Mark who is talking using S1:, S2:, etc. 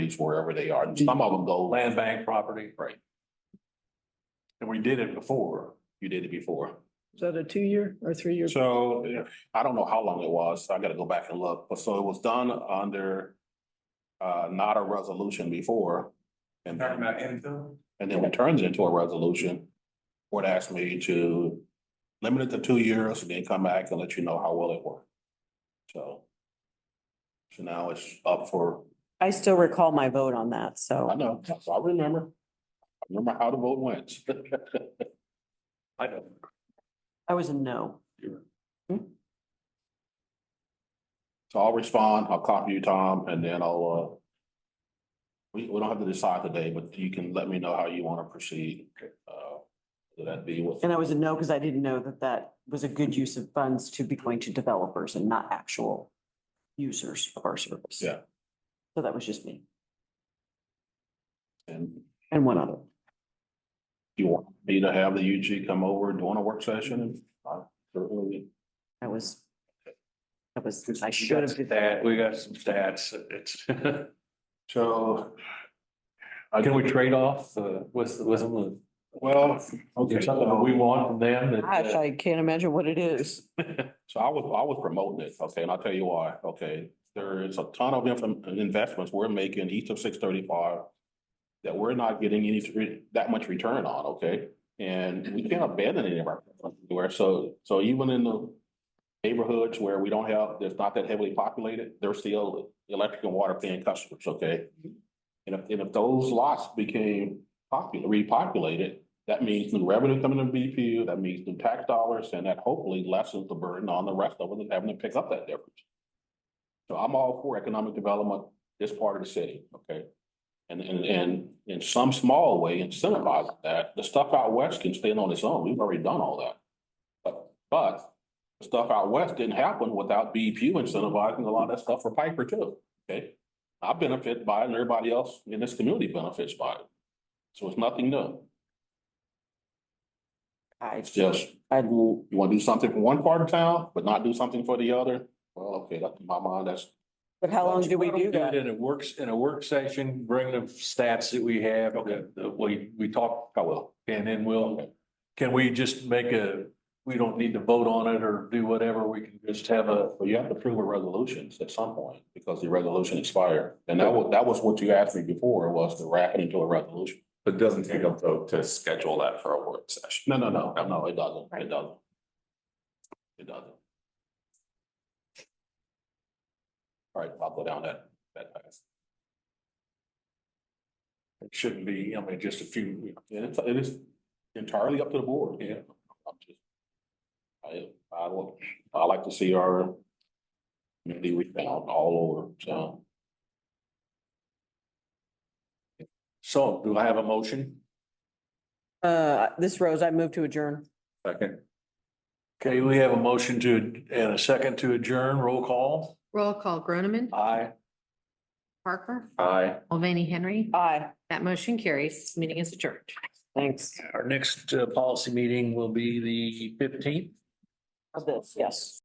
S1: properties wherever they are. And
S2: Mm-hmm.
S1: Some of them go.
S3: land bank property.
S1: Right.
S3: And we did it before,
S1: You did it before.
S4: Is that a two-year or three-year?
S3: so yeah,
S1: I don't know how long it was. I gotta go back and look. But so it was done under uh, not a resolution before. And
S2: Talking
S1: then,
S2: about infill?
S1: and then it turns into a resolution. Board asked me to limit it to two years and then come back and let you know how well it worked. So. So now it's up for,
S5: I still recall my vote on that,
S1: I
S5: so
S1: know, I remember. I Remember how the vote went. I don't.
S5: I was a no.
S1: So I'll respond, I'll copy you, Tom, and then I'll, uh. We, we don't have to decide today, but you can let me know how you wanna proceed. Uh, would that be what?
S5: And I was a no because I didn't know that that was a good use of funds to be going to developers and not actual users of our service.
S1: Yeah.
S5: So that was just me
S1: And
S5: and one other.
S1: you want me to have the UG come over and doing a work session? I certainly-
S5: I was, I was, I
S3: we
S5: should
S3: got
S5: have. did
S3: stat, we got some stats, it's.
S1: So. I
S3: Can
S1: can,
S3: we trade off uh, with, with them?
S1: well, okay,
S3: There's something that we want from them that.
S5: Gosh, I can't imagine what it is.
S1: so I was, I was promoting it, okay, and I'll tell you why, okay? There is a ton of infam- investments we're making each of six thirty-five that we're not getting any, that much return on, okay? And we can't abandon any of our, where, so, so even in the neighborhoods where we don't have, there's not that heavily populated, there's still electric and water paying customers, okay? And if, and if those lots became popular, repopulated, that means new revenue coming to BPU, that means new tax dollars, and that hopefully lessens the burden on the rest of us having to pick up that difference. So I'm all for economic development, this part of the city, okay? And, and, and in some small way incentivize that, the stuff out west can stand on its own, we've already done all that. But, but the stuff out west didn't happen without BPU incentivizing a lot of that stuff for Piper too, okay? I benefit by it and everybody else in this community benefits by it. So it's nothing new.
S5: I,
S1: It's just,
S5: I,
S1: you wanna do something for one part of town, but not do something for the other? Well, okay, that's in my mind, that's,
S5: but how long do we
S3: Why don't
S5: do
S3: it
S5: that?
S3: In a works, in a work session, bring the stats that we have,
S1: Okay.
S3: that, that we, we talked,
S1: I will.
S3: and then we'll,
S1: Okay.
S3: can we just make a, we don't need to vote on it or do whatever, we can just have a,
S1: But you have to approve a resolution at some point because the resolution expired. And that was, that was what you asked me before was to wrap it into a resolution.
S2: But it doesn't take a vote to schedule that for a work session.
S1: No, no, no, no, it doesn't. It doesn't. It doesn't. All right, I'll go down that, that path.
S3: it shouldn't be, I mean, just a few,
S1: And it's, it is entirely up to the board.
S3: Yeah.
S1: I'm just- I, I will, I like to see our community rebound all over, so.
S3: So do I have a motion?
S5: Uh, this rose, I move to adjourn.
S2: Second.
S3: Okay, we have a motion to, and a second to adjourn, roll call.
S6: Roll call, Groneman,
S3: Aye.
S6: Parker,
S2: Aye.
S6: Mulvaney Henry.
S5: Aye,
S6: That motion carries. Meeting is adjourned.
S5: thanks
S3: Our next uh, policy meeting will be the fifteenth.
S5: of this, yes.